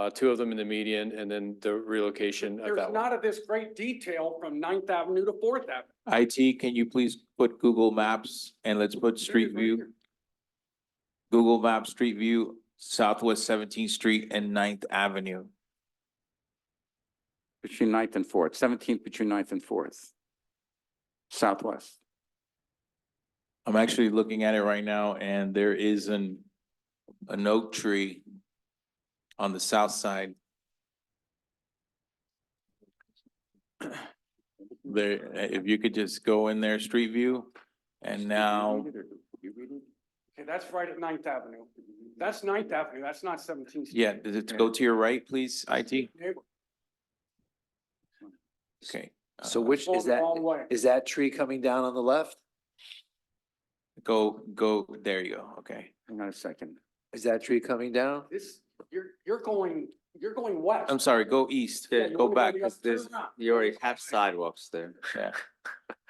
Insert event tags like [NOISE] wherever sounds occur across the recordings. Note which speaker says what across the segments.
Speaker 1: uh, two of them in the median and then the relocation of
Speaker 2: There's
Speaker 1: that one.
Speaker 2: not of this great detail from Ninth Avenue to Fourth Avenue.
Speaker 3: IT, can you please put Google Maps and let's put Street
Speaker 2: There it is right
Speaker 3: View, Google Maps, Street View, Southwest Seventeenth Street and Ninth Avenue.
Speaker 4: Between ninth and fourth, seventeenth between ninth and fourth. Southwest.
Speaker 3: I'm actually looking at it right now and there is an, an oak tree on the south side. There, if you could just go in there, Street View, and now,
Speaker 2: here. Okay, that's right at Ninth Avenue. That's Ninth Avenue, that's not Seventeenth.
Speaker 3: yeah, does it go to your right, please, IT? Okay.
Speaker 5: So
Speaker 3: uh,
Speaker 5: which is that, is that tree coming down on the left?
Speaker 3: Go, go, there you go, okay.
Speaker 4: Hang on a second.
Speaker 5: Is that tree coming down?
Speaker 2: This, you're, you're going, you're going west.
Speaker 3: I'm sorry, go east,
Speaker 2: Yeah, you
Speaker 3: go
Speaker 2: wanna
Speaker 3: back,
Speaker 2: the
Speaker 3: cause
Speaker 2: other-
Speaker 3: there's,
Speaker 2: turn around.
Speaker 5: You already have sidewalks there.
Speaker 3: yeah.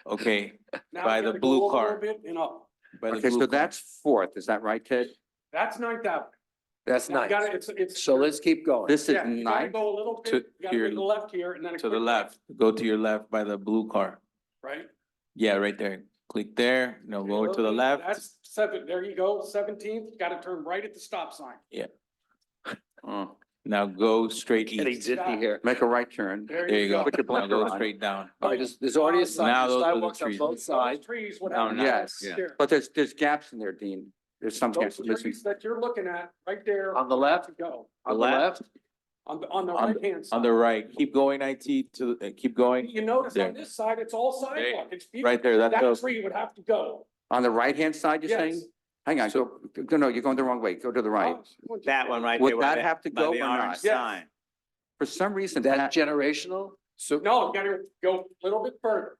Speaker 3: Okay,
Speaker 2: Now
Speaker 3: by
Speaker 2: you
Speaker 3: the
Speaker 2: gotta go
Speaker 3: blue
Speaker 2: over a
Speaker 3: car.
Speaker 2: little bit And up.
Speaker 3: by the
Speaker 4: Okay,
Speaker 3: blue
Speaker 4: so
Speaker 3: car.
Speaker 4: that's fourth, is that right, Ted?
Speaker 2: That's Ninth Avenue.
Speaker 5: That's
Speaker 2: Now you
Speaker 5: nice.
Speaker 2: gotta- It's, it's.
Speaker 5: So let's keep going.
Speaker 4: This is
Speaker 2: yeah, you gotta
Speaker 4: ninth,
Speaker 2: Go a little
Speaker 3: To
Speaker 2: bit, you gotta
Speaker 3: your-
Speaker 2: make a left here and then. a
Speaker 3: To the
Speaker 2: quick
Speaker 3: left, go to your left by the blue car.
Speaker 2: Right?
Speaker 3: Yeah, right there. Click there, no, go to the left.
Speaker 2: That's seven, there you go, Seventeenth, gotta turn right at the stop sign.
Speaker 4: Oh,
Speaker 3: Now go straight east.
Speaker 2: zippy here.
Speaker 4: make a right turn.
Speaker 3: There you go.
Speaker 4: Put your
Speaker 3: Now
Speaker 4: blinker
Speaker 3: go
Speaker 4: on.
Speaker 3: straight down.
Speaker 5: All right, there's, there's already a
Speaker 3: Now
Speaker 5: side,
Speaker 3: those are the
Speaker 5: sidewalks on
Speaker 3: trees.
Speaker 5: both sides.
Speaker 2: Trees,
Speaker 5: Oh,
Speaker 2: whatever.
Speaker 5: no.
Speaker 4: Yes,
Speaker 2: There.
Speaker 4: but there's, there's gaps in there, Dean. There's some
Speaker 2: Those
Speaker 4: gaps missing.
Speaker 2: trees that you're looking at, right there.
Speaker 5: On the left?
Speaker 2: to Go,
Speaker 5: On the left?
Speaker 2: on the, on the
Speaker 3: On
Speaker 2: right hand side.
Speaker 3: On the right, keep going IT to, the- uh, keep going.
Speaker 2: You notice
Speaker 3: there.
Speaker 2: on this side, it's all
Speaker 3: There.
Speaker 2: sidewalk, it's. beautiful.
Speaker 3: Right there, that
Speaker 2: That
Speaker 3: goes,
Speaker 2: tree would have to go.
Speaker 4: On the right-hand side, you're saying?
Speaker 2: Yes. Oh,
Speaker 4: Hang on, go, go- no, you're going the wrong way. Go to the right.
Speaker 3: Oh.
Speaker 6: That one right there.
Speaker 4: Would
Speaker 6: where
Speaker 4: that
Speaker 6: the-
Speaker 4: have to
Speaker 6: by
Speaker 4: go
Speaker 6: the
Speaker 4: or
Speaker 6: orange
Speaker 4: not?
Speaker 2: Yes.
Speaker 6: sign.
Speaker 4: For some reason,
Speaker 5: That
Speaker 4: that,
Speaker 5: generational?
Speaker 2: So. No, you gotta go a little bit further.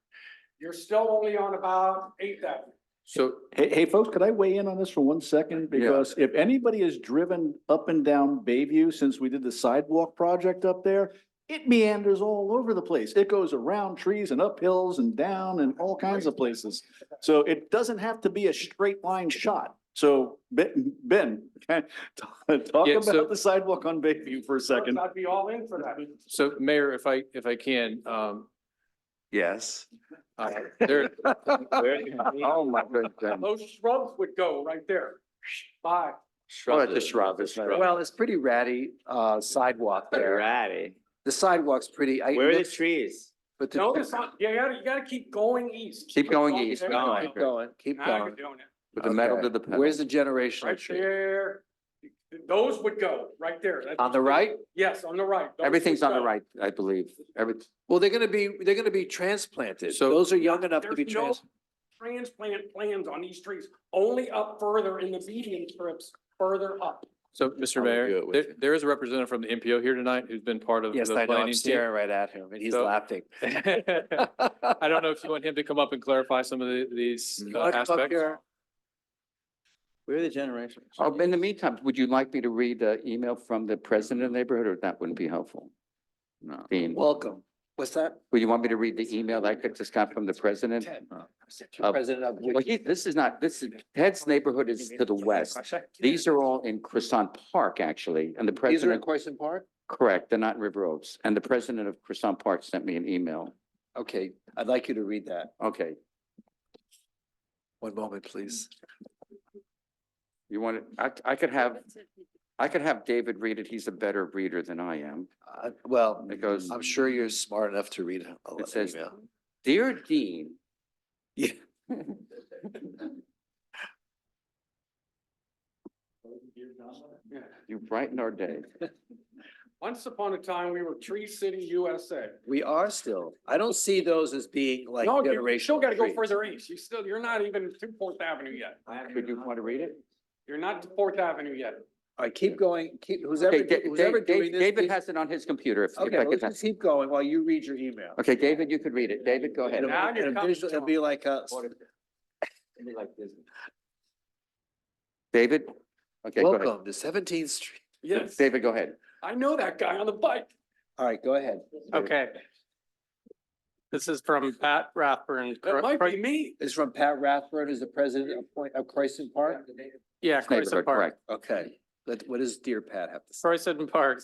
Speaker 2: You're still only on about Eighth Avenue.
Speaker 5: So
Speaker 7: Hey, hey, folks, could I weigh in on this for one second?
Speaker 4: Yeah.
Speaker 7: Because if anybody has driven up and down Bayview since we did the sidewalk project up there, it meanders all over the place. It goes around trees and up hills and down and all kinds of places. So it doesn't have to be a straight line shot. So Ben, Ben, [LAUGHS] talk
Speaker 1: Yeah, so-
Speaker 7: about the sidewalk on Bayview for a second.
Speaker 2: I'd be all in for that.
Speaker 1: so Mayor, if I, if I can, um,
Speaker 4: yes.
Speaker 1: uh, there,
Speaker 4: Oh, my goodness.
Speaker 2: Those shrubs would go right there. Bye.
Speaker 4: Well, it's a shrub, it's not.
Speaker 5: Well, it's pretty ratty, uh, sidewalk there.
Speaker 6: Ratty.
Speaker 5: The sidewalk's pretty, I,
Speaker 6: Where are the
Speaker 5: looked,
Speaker 6: trees?
Speaker 5: but
Speaker 2: Notice,
Speaker 5: the,
Speaker 2: on- you gotta, you gotta keep going east. Oh,
Speaker 4: Keep going east,
Speaker 2: There
Speaker 4: keep
Speaker 2: you
Speaker 7: Oh,
Speaker 2: go.
Speaker 6: going.
Speaker 5: keep going, keep
Speaker 2: Now you're
Speaker 5: going.
Speaker 2: doing it.
Speaker 4: With the metal
Speaker 5: Okay.
Speaker 4: to the pedal.
Speaker 5: Where's the generational
Speaker 2: Right
Speaker 5: tree?
Speaker 2: there. Those would go, right there. That's-
Speaker 5: On the right?
Speaker 2: Yes, on the right. Those
Speaker 4: Everything's
Speaker 2: would
Speaker 4: on the
Speaker 2: go.
Speaker 4: right, I believe. Every,
Speaker 5: Well, they're gonna be, they're gonna be transplanted.
Speaker 4: So-
Speaker 5: Those are young enough to be
Speaker 2: There's no
Speaker 5: trans,
Speaker 2: Transplant plans on these trees, only up further in the median strips, further up.
Speaker 5: [LAUGHS]
Speaker 1: so Mr.
Speaker 4: I'll do
Speaker 1: Mayor,
Speaker 4: it with
Speaker 1: there,
Speaker 4: you.
Speaker 1: there is a representative from the NPO here tonight who's been part of the
Speaker 5: yes, I know, I'm
Speaker 1: planning team.
Speaker 5: staring right at him and he's
Speaker 1: So- [LAUGHS]
Speaker 5: laughing.
Speaker 1: I don't know if you want him to come up and clarify some of the, these uh,
Speaker 5: Come up
Speaker 1: aspects.
Speaker 5: here.
Speaker 3: where are the generations?
Speaker 4: oh, in the meantime, would you like me to read the email from the president of the neighborhood or that wouldn't be helpful? No. Dean,
Speaker 5: Welcome. What's that?
Speaker 4: would you want me to read the email that I just got from the president?
Speaker 5: Ted.
Speaker 4: Uh,
Speaker 5: President of.
Speaker 4: Well, he, this is not, this is, Ted's neighborhood is to the west. These are all in Croissant Park, actually, and the
Speaker 5: These are
Speaker 4: president,
Speaker 5: in Question Park?
Speaker 4: correct, they're not in River Oaks. And the president of Croissant Park sent me an email.
Speaker 5: Okay, I'd like you to read that.
Speaker 4: Okay,
Speaker 5: One moment, please.
Speaker 4: you want to, I, I could have, I could have David read it. He's a better reader than I am.
Speaker 5: Uh, well,
Speaker 4: It goes,
Speaker 5: I'm sure you're smart enough to read a
Speaker 4: It
Speaker 5: lot
Speaker 4: says-
Speaker 5: of email.
Speaker 4: Dear Dean.
Speaker 5: Yeah.
Speaker 4: You brighten our day.
Speaker 2: Once upon a time, we were Tree City, USA.
Speaker 5: We are still, I don't see those as being like
Speaker 2: No, you- you still
Speaker 5: generational
Speaker 2: gotta go
Speaker 5: trees.
Speaker 2: further east. You still, you're not even to Fourth Avenue yet.
Speaker 4: Would you want to read it?
Speaker 2: You're not to Fourth Avenue yet.
Speaker 5: All right, keep going, keep, who's ever,
Speaker 4: Okay, Da-
Speaker 5: who's
Speaker 4: Da-
Speaker 5: ever
Speaker 4: Da-
Speaker 5: doing this.
Speaker 4: David
Speaker 5: please-
Speaker 4: has it on his computer. if- if
Speaker 5: Okay,
Speaker 4: I
Speaker 5: let's
Speaker 4: could-
Speaker 5: just keep going while you read your email.
Speaker 4: Okay, David, you could read it. David, go ahead.
Speaker 5: It'll
Speaker 2: Now you're
Speaker 5: it'll
Speaker 2: coming
Speaker 5: visual- it'll
Speaker 2: to
Speaker 5: be like a,
Speaker 4: David? Okay, go ahead.
Speaker 5: welcome to Seventeenth Street.
Speaker 2: Yes,
Speaker 4: David, go ahead.
Speaker 2: I know that guy on the bike.
Speaker 5: All right, go ahead.
Speaker 8: Okay. This is from Pat Rathburn.
Speaker 2: That
Speaker 8: Cro-
Speaker 2: might
Speaker 8: Cro-
Speaker 2: be me.
Speaker 5: This is from Pat Rathburn, who's the president of Point, of Croissant Park?
Speaker 8: Yeah,
Speaker 4: Neighborhood,
Speaker 8: Croissant Park.
Speaker 4: correct.
Speaker 5: Okay, Let- what does Dear Pat have to say?
Speaker 8: Croissant Park